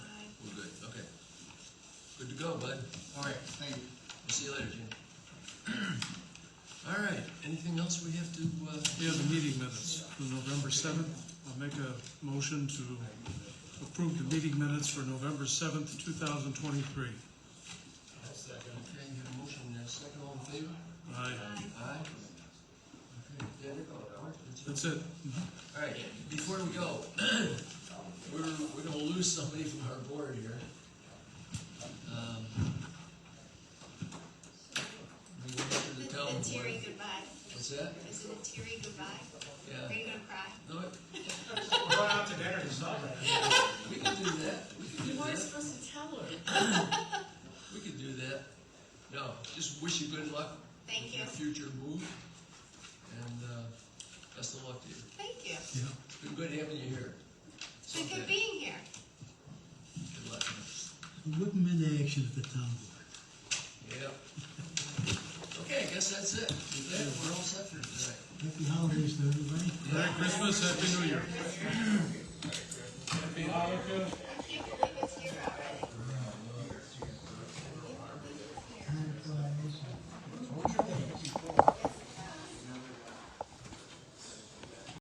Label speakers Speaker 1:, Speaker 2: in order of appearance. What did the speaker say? Speaker 1: to go, bud.
Speaker 2: All right, thank you.
Speaker 1: We'll see you later, Jim. All right, anything else we have to, uh,
Speaker 3: We have the meeting minutes for November 7th. I'll make a motion to approve the meeting minutes for November 7th, 2023.
Speaker 1: okay, you have a motion and a second, all in favor?
Speaker 3: Aye.
Speaker 1: Aye. Okay, Derek, all right, that's it.
Speaker 3: That's it.
Speaker 1: All right, before we go, we're, we're gonna lose somebody from our board here. Um, We went up to
Speaker 4: The
Speaker 1: the
Speaker 4: the
Speaker 1: town
Speaker 4: teary
Speaker 1: board.
Speaker 4: goodbye.
Speaker 1: What's that?
Speaker 4: Is it a teary goodbye? Are
Speaker 1: Yeah.
Speaker 4: you gonna cry?
Speaker 1: No, it-
Speaker 2: We're going out to dinner to celebrate.
Speaker 1: we can do that. We can do
Speaker 5: You weren't
Speaker 1: that.
Speaker 5: supposed to tell her.
Speaker 1: We could do that. No, just wish you good luck.
Speaker 4: Thank
Speaker 1: with
Speaker 4: you.
Speaker 1: Your future move, and, uh, best of luck to you.
Speaker 4: Thank you.
Speaker 1: It's been good having you here.
Speaker 4: It's been
Speaker 1: Okay.
Speaker 4: good being here.
Speaker 1: Good luck.
Speaker 6: Wouldn't in action at the town board.
Speaker 1: Yep. Okay, I guess that's it. With that, we're all set for tonight.
Speaker 6: Happy holidays to everybody.
Speaker 3: Merry Christmas, Happy New Year.
Speaker 1: Happy Hanukkah.